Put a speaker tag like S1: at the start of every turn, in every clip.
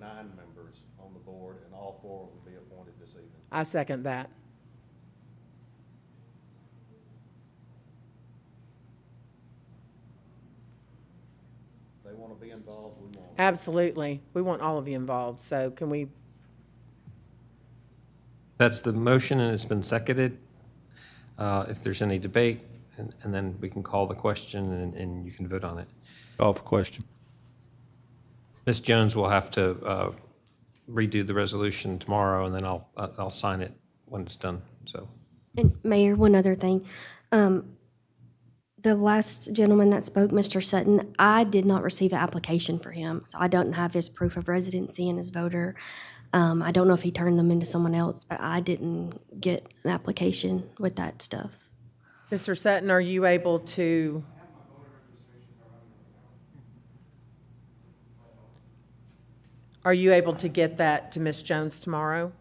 S1: nine members on the board, and all four will be appointed this evening.
S2: I second that.
S1: They want to be involved, we want. them.
S2: Absolutely. We want all of you involved, so can we,
S3: That's the motion, and it's been seconded. Uh, If there's any debate, and and then we can call the question, and- and you can vote on it.
S4: Call for question.
S3: Ms. Jones will have to uh, redo the resolution tomorrow, and then I'll, uh, I'll sign it when it's done, so.
S5: And Mayor, one other thing. Um, The last gentleman that spoke, Mr. Sutton, I did not receive an application for him. So I don't have his proof of residency and his voter. Um, I don't know if he turned them into someone else, but I didn't get an application with that stuff.
S2: Mr. Sutton, are you able to? Are you able to get that to Ms. Jones tomorrow?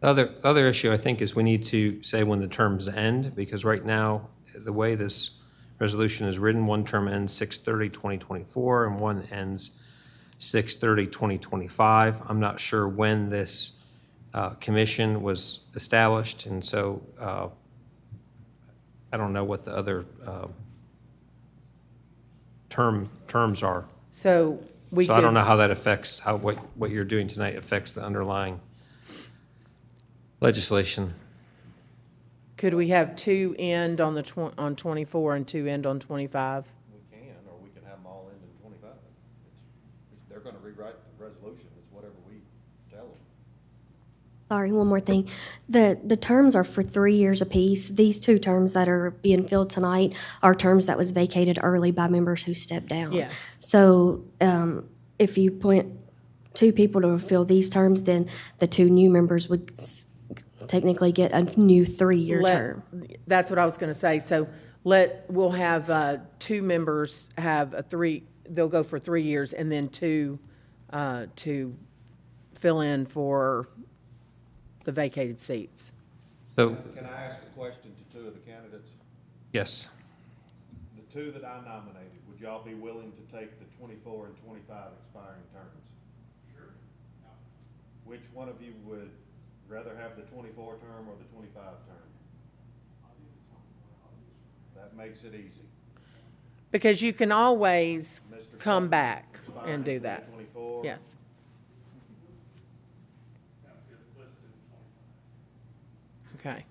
S3: The other, the other issue, I think, is we need to say when the terms end, because right now, the way this resolution is written, one term ends 6/30/2024, and one ends 6/30/2025. I'm not sure when this uh, commission was established, and so uh, I don't know what the other uh, term, terms are.
S2: So we
S3: So I don't know
S2: could,
S3: how that affects, how, what, what you're doing tonight affects the underlying legislation.
S2: could we have two end on the twen- on twenty-four and two end on twenty-five?
S1: We can, or we can have them all end in twenty-five. It's- it's- They're going to rewrite the resolution, it's whatever we tell them.
S5: Sorry, one more thing. The, the terms are for three years apiece. These two terms that are being filled tonight are terms that was vacated early by members who stepped down.
S2: Yes.
S5: So um, if you appoint two people to fill these terms, then the two new members would s- technically get a new three-year
S2: Let-
S5: term.
S2: That's what I was gonna say, so let, we'll have, uh, two members have a three, they'll go for three years, and then two, uh, to fill in for the vacated seats.
S3: So,
S1: Can I ask a question to two of the candidates?
S3: yes,
S1: The two that I nominated, would y'all be willing to take the twenty-four and twenty-five expiring terms? Sure. Which one of you would rather have the twenty-four term or the twenty-five term? That makes it easy.
S2: Because you can always
S1: Mr.
S2: come back
S1: Expiring
S2: and do
S1: for the
S2: that.
S1: Twenty-four.
S2: Yes. Okay.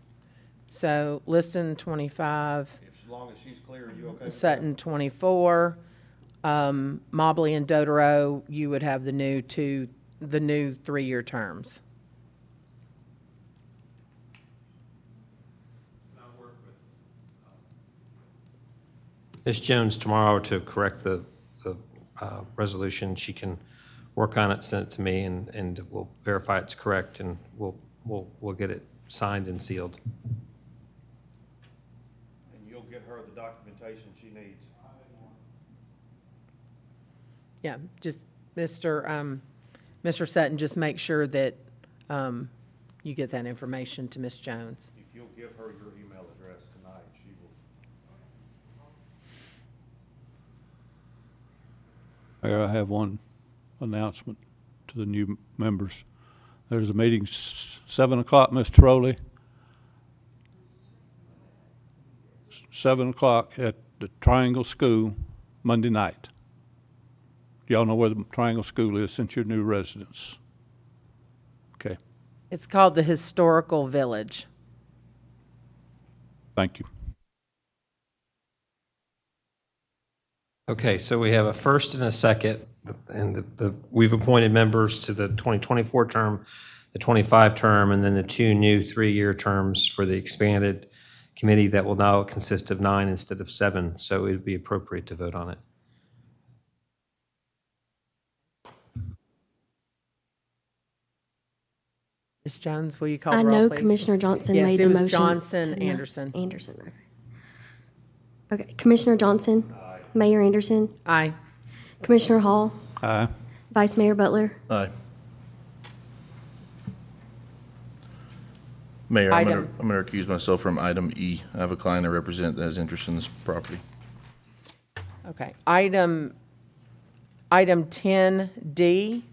S2: So Liston twenty-five,
S1: If, as long as she's clear, are you okay? with that?
S2: Sutton twenty-four, um, Mobley and Dodaro, you would have the new two, the new three-year terms.
S3: Ms. Jones tomorrow to correct the, the uh, resolution, she can work on it, send it to me, and, and we'll verify it's correct, and we'll, we'll, we'll get it signed and sealed.
S1: And you'll get her the documentation she needs.
S2: Yeah, just, Mr., um, Mr. Sutton, just make sure that, um, you get that information to Ms. Jones.
S1: If you'll give her your email address tonight, she will
S4: Mayor, I have one announcement to the new m- members. There's a meeting s- seven o'clock, Ms. Trolley. S- Seven o'clock at the Triangle School, Monday night. Y'all know where the Triangle School is since you're new residents. Okay,
S2: It's called the Historical Village.
S4: thank you.
S3: Okay, so we have a first and a second, and the, the, we've appointed members to the 2024 term, the 25 term, and then the two new three-year terms for the expanded committee that will now consist of nine instead of seven, so it'd be appropriate to vote on it.
S2: Ms. Jones, will you call
S5: I
S2: the roll,
S5: know
S2: please?
S5: Commissioner Johnson
S2: Yes,
S5: made
S2: it
S5: the
S2: was
S5: motion.
S2: Johnson,
S5: to not-
S2: Anderson.
S5: Anderson, okay. Okay, Commissioner Johnson? Mayor Anderson?
S2: Aye.
S5: Commissioner Hall?
S4: Aye.
S5: Vice Mayor Butler?
S6: Aye. Mayor, I'm going
S2: Item.
S6: to, I'm going to recuse myself from item E. I have a client I represent that has interest in this property.
S2: Okay. Item, item ten D.